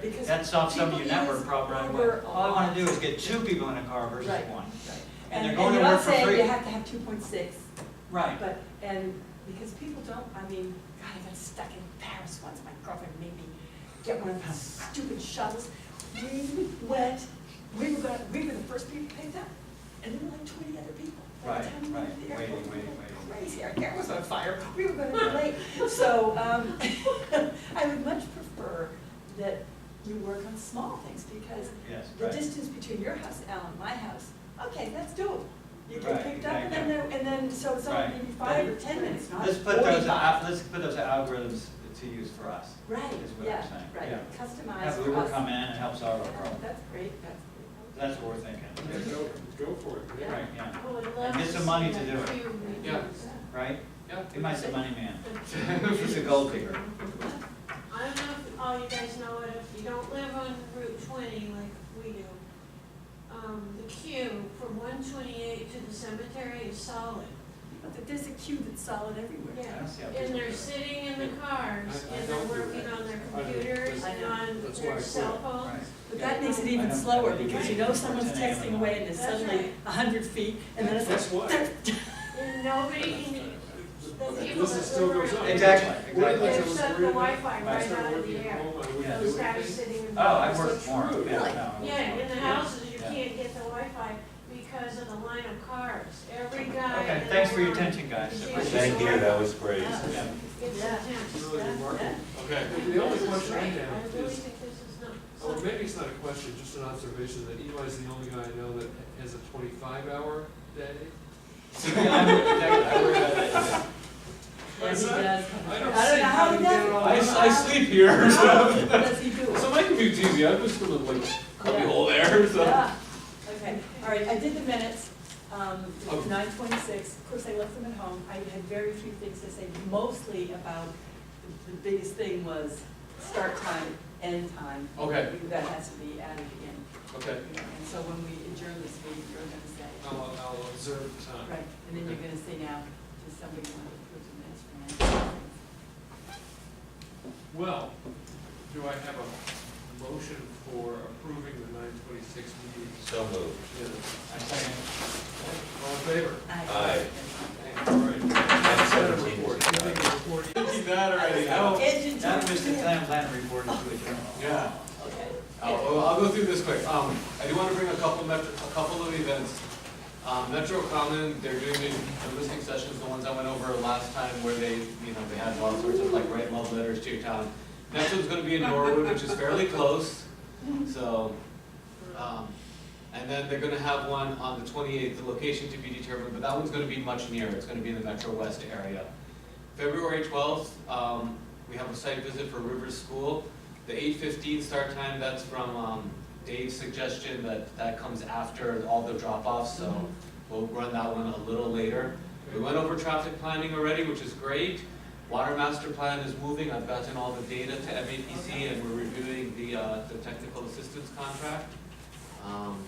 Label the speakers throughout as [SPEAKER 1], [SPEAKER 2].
[SPEAKER 1] because
[SPEAKER 2] That solves some of your
[SPEAKER 1] people
[SPEAKER 2] network
[SPEAKER 1] use
[SPEAKER 2] problem right
[SPEAKER 1] Uber
[SPEAKER 2] away.
[SPEAKER 1] a
[SPEAKER 2] All I wanna
[SPEAKER 1] lot.
[SPEAKER 2] do is get two people in a car versus
[SPEAKER 1] Right.
[SPEAKER 2] one.
[SPEAKER 1] Right.
[SPEAKER 2] And they're
[SPEAKER 1] And,
[SPEAKER 2] going
[SPEAKER 1] and
[SPEAKER 2] to
[SPEAKER 1] you're
[SPEAKER 2] work
[SPEAKER 1] not
[SPEAKER 2] for
[SPEAKER 1] saying
[SPEAKER 2] free.
[SPEAKER 1] you have to have two point six,
[SPEAKER 2] Right.
[SPEAKER 1] but, and, because people don't, I mean, God, I got stuck in Paris once, my girlfriend made me get one of those stupid shuttles. We went, we were gonna, we were the first people picked up, and there were like twenty other people. By the
[SPEAKER 2] Right,
[SPEAKER 1] time we went to
[SPEAKER 2] right.
[SPEAKER 1] the
[SPEAKER 2] Waiting,
[SPEAKER 1] airport, we
[SPEAKER 2] waiting,
[SPEAKER 1] were
[SPEAKER 2] waiting.
[SPEAKER 1] Crazy, our car was on fire, we were gonna be late, so, um, I would much prefer that you work on small things, because
[SPEAKER 2] Yes,
[SPEAKER 1] the
[SPEAKER 2] right.
[SPEAKER 1] distance between your house, Al, and my house, okay, that's doable. You get
[SPEAKER 2] Right,
[SPEAKER 1] picked up and then,
[SPEAKER 2] exactly.
[SPEAKER 1] there- and then, so it's only
[SPEAKER 2] Right.
[SPEAKER 1] maybe five or ten minutes, not
[SPEAKER 2] Let's put those, al-
[SPEAKER 1] 45.
[SPEAKER 2] let's put those algorithms to use for us.
[SPEAKER 1] Right,
[SPEAKER 2] is what I'm
[SPEAKER 1] yeah,
[SPEAKER 2] saying, yeah.
[SPEAKER 1] right, customized
[SPEAKER 2] Have
[SPEAKER 1] for
[SPEAKER 2] Uber
[SPEAKER 1] us.
[SPEAKER 2] come in and help solve our
[SPEAKER 1] Yeah,
[SPEAKER 2] problem.
[SPEAKER 1] That's great, that's
[SPEAKER 2] That's what we're thinking.
[SPEAKER 3] Yeah, go, go for it.
[SPEAKER 1] Yeah.
[SPEAKER 2] Right, yeah,
[SPEAKER 4] Well, it
[SPEAKER 2] And get
[SPEAKER 4] allows
[SPEAKER 2] some
[SPEAKER 4] us
[SPEAKER 2] money to
[SPEAKER 4] have
[SPEAKER 2] do it.
[SPEAKER 4] two
[SPEAKER 3] Yeah.
[SPEAKER 4] meetings.
[SPEAKER 2] right?
[SPEAKER 3] Yeah.
[SPEAKER 2] He might say money man.
[SPEAKER 4] But-
[SPEAKER 2] He's a gold digger.
[SPEAKER 4] I don't know if all you guys know it, if you don't live on Route twenty like we do, um, the queue from one twenty-eight to the cemetery is solid.
[SPEAKER 1] great. But there's a queue that's solid everywhere.
[SPEAKER 4] Yeah,
[SPEAKER 2] don't see how
[SPEAKER 4] and
[SPEAKER 2] people
[SPEAKER 4] they're
[SPEAKER 2] do it.
[SPEAKER 4] sitting in the cars,
[SPEAKER 3] I- I
[SPEAKER 4] and
[SPEAKER 3] don't
[SPEAKER 4] they're
[SPEAKER 3] do
[SPEAKER 4] working
[SPEAKER 3] that.
[SPEAKER 4] on their
[SPEAKER 3] I don't.
[SPEAKER 4] computers
[SPEAKER 1] I
[SPEAKER 4] and
[SPEAKER 1] know.
[SPEAKER 4] on
[SPEAKER 3] That's why I
[SPEAKER 4] their
[SPEAKER 3] quit.
[SPEAKER 4] cell
[SPEAKER 2] Right.
[SPEAKER 4] phones.
[SPEAKER 1] But that makes it
[SPEAKER 2] I
[SPEAKER 1] even
[SPEAKER 2] don't-
[SPEAKER 1] slower, because you know someone's
[SPEAKER 2] Right.
[SPEAKER 1] texting away and there's
[SPEAKER 4] That's
[SPEAKER 1] suddenly
[SPEAKER 4] right.
[SPEAKER 1] a hundred feet, and then it's like.
[SPEAKER 3] That's why.
[SPEAKER 4] And nobody can, the people
[SPEAKER 3] This is
[SPEAKER 4] that
[SPEAKER 3] still
[SPEAKER 4] live
[SPEAKER 3] goes
[SPEAKER 4] around-
[SPEAKER 3] on.
[SPEAKER 2] Exactly,
[SPEAKER 3] One of
[SPEAKER 2] exactly.
[SPEAKER 3] the
[SPEAKER 4] They've
[SPEAKER 3] things I
[SPEAKER 4] shut
[SPEAKER 3] was
[SPEAKER 4] the
[SPEAKER 3] worried
[SPEAKER 4] Wi-Fi
[SPEAKER 3] about, I
[SPEAKER 4] right
[SPEAKER 3] started
[SPEAKER 4] out of the
[SPEAKER 3] working from
[SPEAKER 4] air.
[SPEAKER 3] home, I wouldn't
[SPEAKER 4] Those
[SPEAKER 3] do
[SPEAKER 4] guys
[SPEAKER 3] anything.
[SPEAKER 4] sitting in.
[SPEAKER 2] Oh, I
[SPEAKER 4] cars.
[SPEAKER 2] worked for him.
[SPEAKER 1] Really?
[SPEAKER 2] Yeah, no, I worked
[SPEAKER 4] Yeah, in
[SPEAKER 2] for
[SPEAKER 4] the
[SPEAKER 2] him.
[SPEAKER 4] houses, you
[SPEAKER 2] Yeah.
[SPEAKER 4] can't get the Wi-Fi because of the line of cars. Every guy.
[SPEAKER 2] Okay,
[SPEAKER 4] in
[SPEAKER 2] thanks for your
[SPEAKER 4] the line
[SPEAKER 2] attention, guys.
[SPEAKER 4] Yeah.
[SPEAKER 5] Thank you, that was great.
[SPEAKER 2] Yeah.
[SPEAKER 4] Gets
[SPEAKER 1] Yeah.
[SPEAKER 4] intense.
[SPEAKER 3] Really remarkable.
[SPEAKER 6] Okay.
[SPEAKER 3] The only
[SPEAKER 4] This is
[SPEAKER 3] question I
[SPEAKER 4] great.
[SPEAKER 3] have
[SPEAKER 4] I really
[SPEAKER 3] is,
[SPEAKER 4] think this is not.
[SPEAKER 3] or maybe it's not a question, just an observation, that Eli's the only guy I know that has a twenty-five hour day.
[SPEAKER 2] So, yeah, I worked at that- I worked at that.
[SPEAKER 1] Yes, he
[SPEAKER 3] I-
[SPEAKER 1] does.
[SPEAKER 3] I don't
[SPEAKER 1] I don't
[SPEAKER 3] see
[SPEAKER 1] know
[SPEAKER 3] how
[SPEAKER 1] how he
[SPEAKER 3] you
[SPEAKER 1] does
[SPEAKER 3] get it all.
[SPEAKER 6] I, I sleep here, so,
[SPEAKER 1] How does he do it?
[SPEAKER 6] so my commute's easy, I just live like, cubby hole there, so.
[SPEAKER 1] Yeah, okay, all right, I did the minutes, um,
[SPEAKER 3] Okay.
[SPEAKER 1] nine twenty-six, of course, I left them at home, I had very few things to say, mostly about, the- the biggest thing was start time, end time.
[SPEAKER 3] Okay.
[SPEAKER 1] That has to be added again,
[SPEAKER 3] Okay,
[SPEAKER 1] you know, and so when we adjourn this meeting, you're gonna say,
[SPEAKER 3] I'll, I'll observe the time.
[SPEAKER 1] right, and then you're gonna say now, does somebody want to approve the minutes for nine twenty-six?
[SPEAKER 3] Well, do I have a motion for approving the nine twenty-six meeting?
[SPEAKER 5] So moved.
[SPEAKER 3] minutes?
[SPEAKER 2] I second.
[SPEAKER 3] All in favor?
[SPEAKER 5] Aye.
[SPEAKER 3] All right. Set a report. You think the report-
[SPEAKER 6] Thank you, that already, I'll,
[SPEAKER 1] Engine
[SPEAKER 2] That
[SPEAKER 1] two.
[SPEAKER 2] was the time plan reported to a journal.
[SPEAKER 6] yeah.
[SPEAKER 1] Okay.
[SPEAKER 6] I'll, I'll go through this quick. Um, I do want to bring a couple metro, a couple of events. Um, Metro Common, they're doing the the listening sessions, the ones I went over last time where they, you know, they had all sorts of like write love letters to your town. Next one's gonna be in Norwood, which is fairly close, so, um, and then they're gonna have one on the twenty-eighth, the location to be determined, but that one's gonna be much nearer, it's gonna be in the Metro West area. February twelfth, um, we have a site visit for Rivers School. The eight fifteen start time, that's from, um, Dave's suggestion that, that comes after all the drop-offs, so we'll run that one a little later. We went over traffic planning already, which is great. Water master plan is moving, I've gotten all the data to MAPC and we're reviewing the, uh, the technical assistance contract. Um,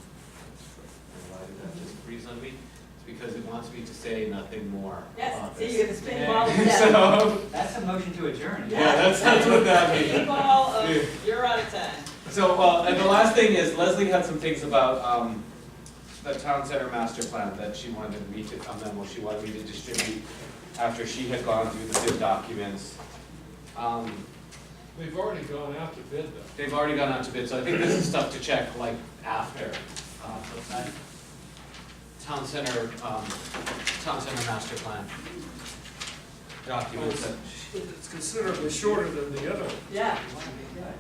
[SPEAKER 6] and why did that just freeze on me? It's because it wants me to say nothing more
[SPEAKER 1] Yes,
[SPEAKER 2] Oh,
[SPEAKER 6] about
[SPEAKER 1] see,
[SPEAKER 6] this.
[SPEAKER 1] you're the spin ball of death.
[SPEAKER 6] So,
[SPEAKER 2] That's a motion to adjourn.
[SPEAKER 6] yeah, that's, that's what that means.
[SPEAKER 1] Ball
[SPEAKER 6] Yeah.
[SPEAKER 1] of, you're out of time.
[SPEAKER 6] So, uh, and the last thing is Leslie had some things about, um, the town center master plan that she wanted me to, a memo she wanted me to distribute after she had gone through the bid documents. Um,
[SPEAKER 3] We've already gone out to bid though.
[SPEAKER 6] they've already gone out to bid, so I think this is stuff to check like after, uh, the plan. Town center, um, town center master plan. Documents that
[SPEAKER 3] It's considerably shorter than the other.
[SPEAKER 1] Yeah.
[SPEAKER 2] Right.